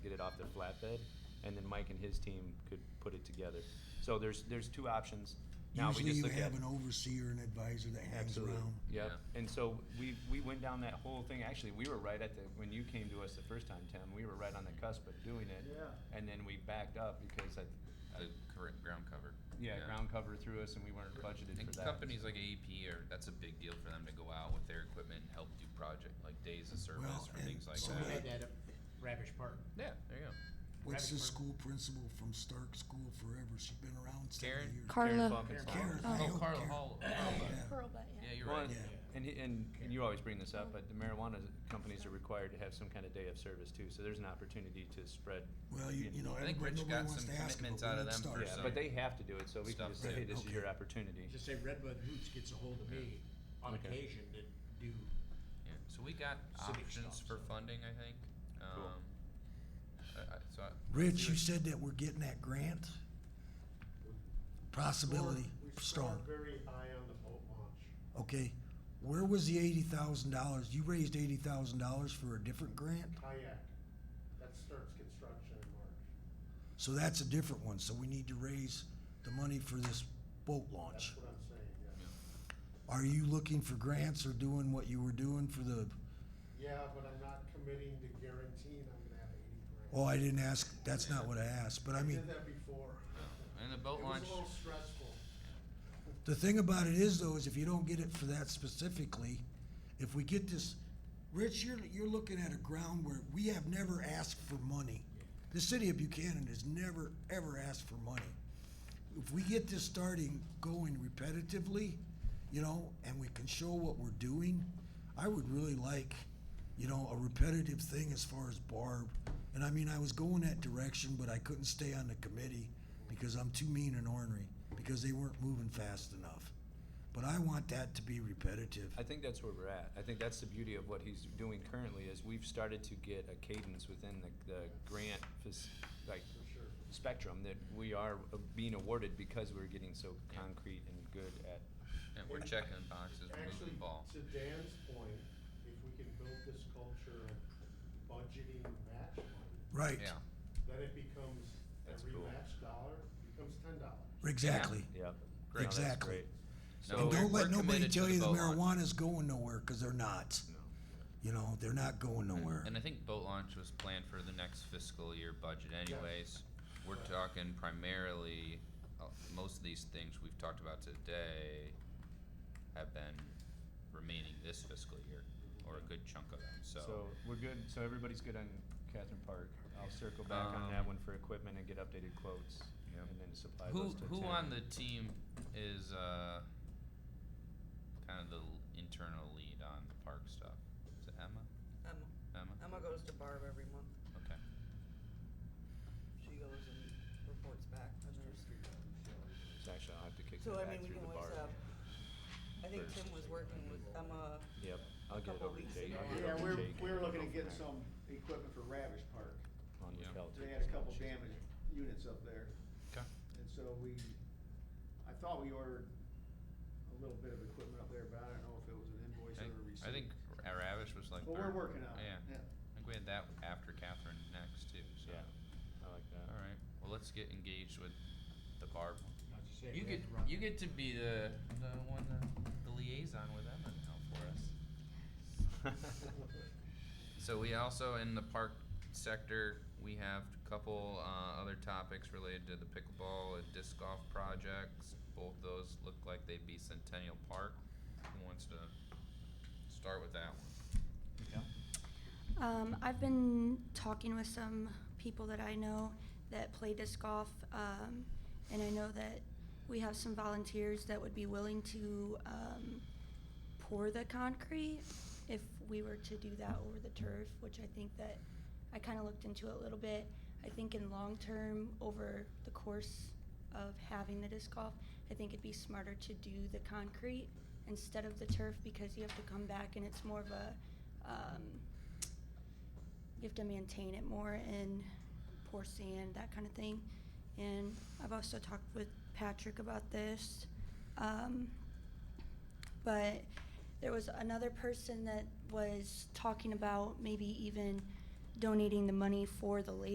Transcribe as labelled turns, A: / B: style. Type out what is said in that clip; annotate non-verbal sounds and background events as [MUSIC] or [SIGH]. A: off their flatbed, and then Mike and his team could put it together. So there's, there's two options. Now we
B: Usually
A: just
B: you
A: look at-
B: have an overseer, an advisor that hangs
A: Absolutely.
B: around.
A: Yep. And so we, we went down that whole thing. Actually, we were right at the, when you came to us the first time, Tim, we were right on the cusp of doing it.
C: Yeah.
A: And then we backed up because I,
D: the cor- ground cover.
A: yeah, ground cover threw us and we weren't budgeted
D: And
A: for that.
D: companies like AEP are that's a big deal for them to go out with their equipment and help do project like days of service
B: Well,
D: or
B: and
D: things like
B: so
E: We
D: that.
E: had that at Ravish Park.
D: Yeah, there you go.
B: What's the
E: Rabbit Park.
B: school principal from Stark School forever? She's been around seventy
D: Karen?
B: years.
A: Karen
F: Carla.
A: Falcon's mom.
B: Karen,
E: Karen
B: I
D: Oh,
B: hope
D: Carla
B: Karen-
D: Hall.
B: Yeah.
F: Pearl, but
D: Yeah,
F: yeah.
D: you're
A: Well,
D: right.
A: and-
B: Yeah.
A: And, he- and, and you always bring this up, but the marijuana companies are required to have some kind of day of service too, so there's an opportunity to spread.
B: Well, you, you know,
D: I think
B: everybody,
D: Rich
B: nobody
D: got
B: wants
D: some
B: to ask him,
D: commitments
B: but
D: out
B: we
D: of
B: need
D: them
B: start.
D: for
A: Yeah,
D: some-
A: but they have to do it, so we can
D: Stuff
A: just say,
D: that-
A: hey, this is your
B: okay.
A: opportunity.
E: Just say Redbud Hoots gets a hold of me on
A: Okay.
E: occasion to do,
D: Yeah. So we got
E: Civic
D: options
E: stuff,
D: for
E: so.
D: funding, I think.
A: Cool.
D: Um, I- I- so I-
B: Rich, you
D: we would-
B: said that we're getting that grant? Possibility, strong.
C: We started very high on the boat launch.
B: Okay, where was the eighty thousand dollars? You raised eighty thousand dollars for a different grant?
C: Kayak, that starts construction in March.
B: So that's a different one, so we need to raise the money for this boat launch.
C: That's what I'm saying, yeah.
B: Are you looking for grants or doing what you were doing for the,
C: Yeah, but I'm not committing to guaranteeing I'm gonna have eighty grand.
B: oh, I didn't ask, that's not what I asked, but I mean,
C: did that before.
D: And the
C: It
D: boat
C: was
D: launch.
C: a little stressful.
B: the thing about it is though, is if you don't get it for that specifically, if we get this, Rich, you're, you're looking at a ground where we have never asked for money. The city of Buchanan has never, ever asked for money. If we get this starting going repetitively, you know, and we can show what we're doing, I would really like, you know, a repetitive thing as far as Barb. And I mean, I was going that direction, but I couldn't stay on the committee because I'm too mean and ornery, because they weren't moving fast enough. But I want that to be repetitive.
A: I think that's where we're at. I think that's the beauty of what he's doing currently is we've started to get a cadence within the, the grant, fac- like, spectrum that we are uh, being awarded because we're getting so concrete and good at.
D: yeah, we're checking boxes. We're moving
C: Actually,
D: the ball.
C: to Dan's point, if we can build this culture of budgeting match money,
B: Right,
D: Yeah.
C: then it becomes,
D: That's
C: every
D: cool.
C: match dollar becomes ten dollars.
B: exactly.
A: Yep. No,
D: Great.
A: that's
B: Exactly.
A: great.
D: No,
B: And
D: we're-
B: don't
D: we're
B: let nobody
D: committed to
B: tell you the
D: boat launch.
B: marijuana's going nowhere, because they're not.
A: No.
B: You know, they're not going nowhere.
D: And I think boat launch was planned for the next fiscal year budget anyways. We're talking primarily, uh, most of these things we've talked about today have been remaining this fiscal year, or a good chunk of them,
A: So
D: so.
A: we're good, so everybody's good on Catherine Park. I'll circle back on that
D: Um,
A: one for equipment and get updated quotes
D: Yep.
A: and then supply
D: Who,
A: those to
D: who
A: Tim.
D: on the team is, uh, kind of the l- internal lead on the park stuff? Is it Emma?
G: Emma.
D: Emma?
G: Emma goes to Barb every month.
D: Okay.
G: She goes and reports back and there's,
A: So Actually, I'll have to kick
G: so
A: that
G: I
A: back
G: mean, we
A: through
G: can
A: the
G: always
A: bar.
G: have, I think
A: First.
G: Tim was working with Emma.
A: Yep, I'll get it
G: couple
A: over to
G: weeks
A: Jake.
G: ago.
A: I'll get it
H: Yeah,
A: over to
H: we're,
A: Jake and
H: we're
A: then
H: looking
A: go
H: to
A: from
H: get
A: there.
H: some equipment for Ravish Park.
A: On
D: Yeah.
A: lookout
H: They
A: to-
H: had a couple damaged units up there,
D: Okay.
H: and so we, I thought we ordered a little bit of equipment up there, but I don't know if it was an invoice or a receipt.
D: I think Ra- Ravish was like
H: But
D: third.
H: we're working on it,
D: Yeah.
H: yeah.
D: I think we had that after Catherine next too, so.
A: Yeah, I like that.
D: All right. Well, let's get engaged with the barb.
E: not to say
D: You
E: we
D: get
E: have to run.
D: you get to be the the one uh, the liaison with Emma now for us.
A: [LAUGHS]
D: So we also in the park sector we have a couple uh, other topics related to the pickleball and disc golf projects. Both those look like they'd be Centennial Park. Who wants to start with that one?
F: Um, I've been talking with some people that I know that play disc golf, um, and I know that we have some volunteers that would be willing to um, pour the concrete if we were to do that over the turf, which I think that I kind of looked into it a little bit. I think in long term, over the course of having the disc golf, I think it'd be smarter to do the concrete instead of the turf because you have to come back and it's more of a um, you have to maintain it more and pour sand, that kind of thing. And I've also talked with Patrick about this. Um, but there was another person that was talking about maybe even donating the money for the lake.